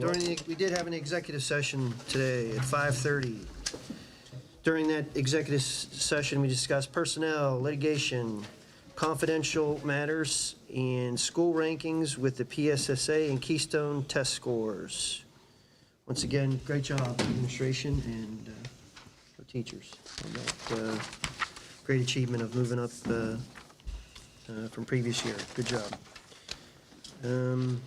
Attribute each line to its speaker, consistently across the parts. Speaker 1: During the, we did have an executive session today at 5:30. During that executive s- session, we discussed personnel, litigation, confidential matters, and school rankings with the PSSA and Keystone test scores. Once again, great job, administration and uh, our teachers. on that, uh, Great achievement of moving up uh, uh, from previous year. Good job. Um,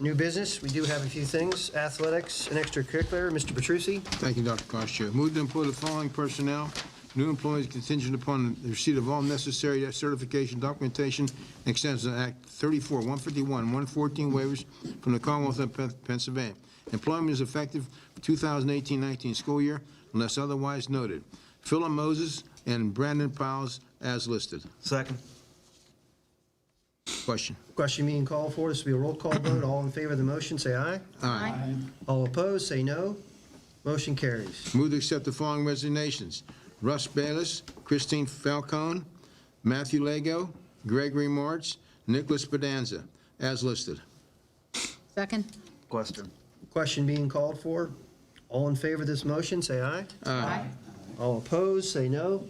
Speaker 1: New business, we do have a few things. Athletics and extracurricular, Mr. Petrucci.
Speaker 2: Thank you, Dr. Costo. Move to employ the following personnel. New employees contingent upon the receipt of all necessary certification, documentation, and extension of Act 34, 151, 114 waivers from the Commonwealth of Pen- Pennsylvania. Employment is effective 2018-19 school year unless otherwise noted. Philip Moses and Brandon Powles as listed.
Speaker 3: Second.
Speaker 2: Question?
Speaker 1: Question being called for, this will be a roll call vote. All in favor of the motion, say aye.
Speaker 2: Aye.
Speaker 1: All opposed, say no. Motion carries.
Speaker 2: Move to accept the following resignations. Russ Bayless, Christine Falcone, Matthew Lego, Gregory Martz, Nicholas Pedanza, as listed.
Speaker 4: Second?
Speaker 3: Question.
Speaker 1: Question being called for, all in favor of this motion, say aye.
Speaker 2: Aye.
Speaker 1: All opposed, say no.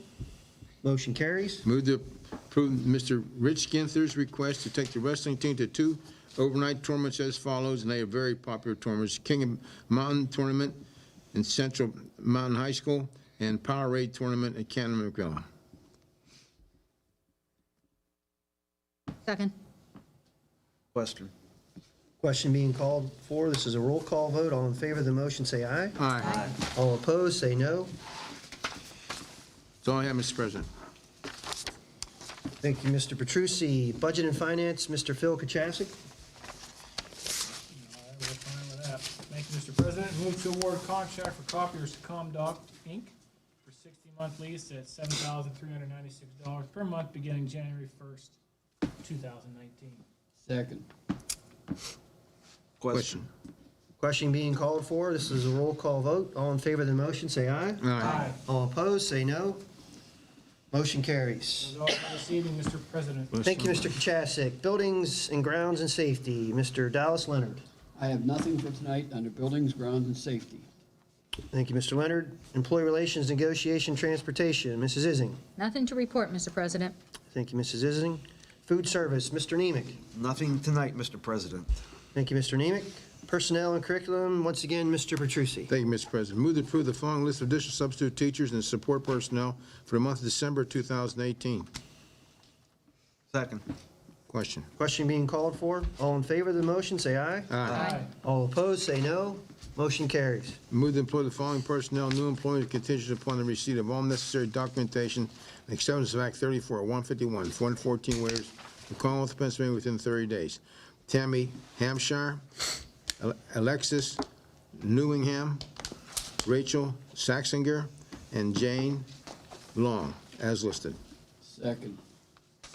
Speaker 1: Motion carries.
Speaker 2: Move to approve Mr. Rich Ginther's request to take the wrestling team to two overnight tournaments as follows, and they are very popular tournaments. King of Mountain Tournament in Central Mountain High School and Powerade Tournament at Cannon McGill.
Speaker 4: Second?
Speaker 3: Question.
Speaker 1: Question being called for, this is a roll call vote. All in favor of the motion, say aye.
Speaker 2: Aye.
Speaker 1: All opposed, say no.
Speaker 2: That's all I have, Mr. President.
Speaker 1: Thank you, Mr. Petrucci. Budget and Finance, Mr. Phil Kachasik.
Speaker 5: All right, we're fine with that. Thank you, Mr. President. Move to award contract for copiers to Comdoc Inc. for sixty-month lease at seven thousand three hundred ninety-six dollars per month beginning January first, two thousand nineteen.
Speaker 2: Question?
Speaker 1: Question being called for, this is a roll call vote. All in favor of the motion, say aye.
Speaker 2: Aye.
Speaker 1: All opposed, say no. Motion carries.
Speaker 5: Those are all for this evening, Mr. President.
Speaker 1: Thank you, Mr. Kachasik. Buildings and Grounds and Safety, Mr. Dallas Leonard.
Speaker 6: I have nothing for tonight under buildings, grounds, and safety.
Speaker 1: Thank you, Mr. Leonard. Employee Relations, Negotiation, Transportation, Mrs. Ising.
Speaker 4: Nothing to report, Mr. President.
Speaker 1: Thank you, Mrs. Ising. Food Service, Mr. Nemec.
Speaker 3: Nothing tonight, Mr. President.
Speaker 1: Thank you, Mr. Nemec. Personnel and Curriculum, once again, Mr. Petrucci.
Speaker 2: Thank you, Mr. President. Move to approve the following list of additional substitute teachers and support personnel for the month of December 2018.
Speaker 3: Second.
Speaker 2: Question?
Speaker 1: Question being called for, all in favor of the motion, say aye.
Speaker 4: Aye.
Speaker 1: All opposed, say no. Motion carries.
Speaker 2: Move to employ the following personnel, new employees contingent upon the receipt of all necessary documentation and acceptance of Act 34, 151, 114 waivers from Commonwealth of Pennsylvania within 30 days. Tammy Hampshire, Al- Alexis Newingham, Rachel Saxinger, and Jane Long, as listed.
Speaker 6: Second,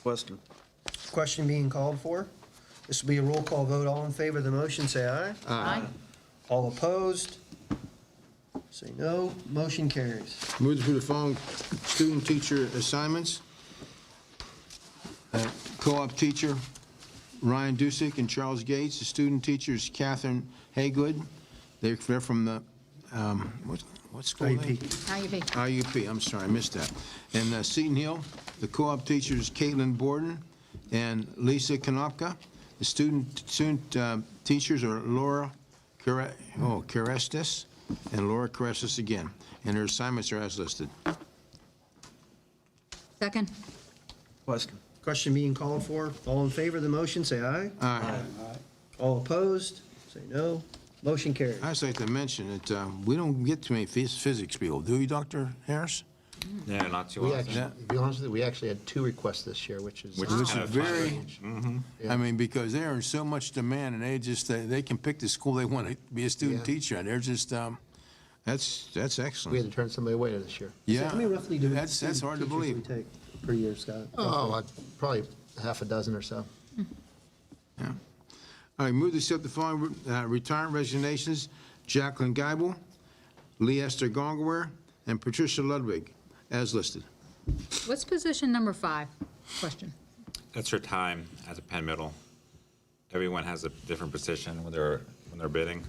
Speaker 3: Question.
Speaker 1: Question being called for. This will be a roll call vote. All in favor of the motion, say aye.
Speaker 4: Aye.
Speaker 1: All opposed, say no. Motion carries.
Speaker 2: Move to approve the following student-teacher assignments. Uh, Co-op teacher Ryan Dusick and Charles Gates. The student teacher is Catherine Haygood. They're they're from the, um, what what school? are they?
Speaker 4: Now you be.
Speaker 2: IUP, I'm sorry, I missed that. And uh, Seton Hill, the co-op teacher is Caitlin Borden and Lisa Konopka. The student, student uh, teachers are Laura Care- oh, Carestis and Laura Carestis again. And their assignments are as listed.
Speaker 4: Second?
Speaker 3: Question.
Speaker 1: Question being called for. All in favor of the motion, say aye.
Speaker 2: Aye.
Speaker 1: All opposed, say no. Motion carries.
Speaker 2: I'd just like to mention that uh, we don't get too many phys- physics people, do we, Dr. Harris?
Speaker 7: Yeah, not too
Speaker 8: We
Speaker 7: often.
Speaker 8: actually, to be honest with you, we actually had two requests this year, which is.
Speaker 7: Which
Speaker 8: uh,
Speaker 7: is
Speaker 2: Which
Speaker 7: kind
Speaker 2: is
Speaker 7: of
Speaker 2: very-
Speaker 7: fun.
Speaker 2: I mean, because they're in so much demand, and they just, they they can pick the school they want to be a student
Speaker 8: Yeah.
Speaker 2: teacher, and they're just, um, that's, that's
Speaker 8: We had
Speaker 2: excellent.
Speaker 8: to turn somebody away this year.
Speaker 2: Yeah.
Speaker 1: How many roughly do?
Speaker 2: That's, that's hard to
Speaker 1: teachers do we
Speaker 2: believe.
Speaker 1: take Per year, Scott.
Speaker 8: Oh, uh, probably half a dozen or so.
Speaker 2: All right, move to accept the following uh, retirement resignations, Jacqueline Geibel, Lee Esther Gongware, and Patricia Ludwig, as listed.
Speaker 4: What's position number five? Question.
Speaker 7: That's your time as a Penn Middle. Everyone has a different position when they're, when they're bidding.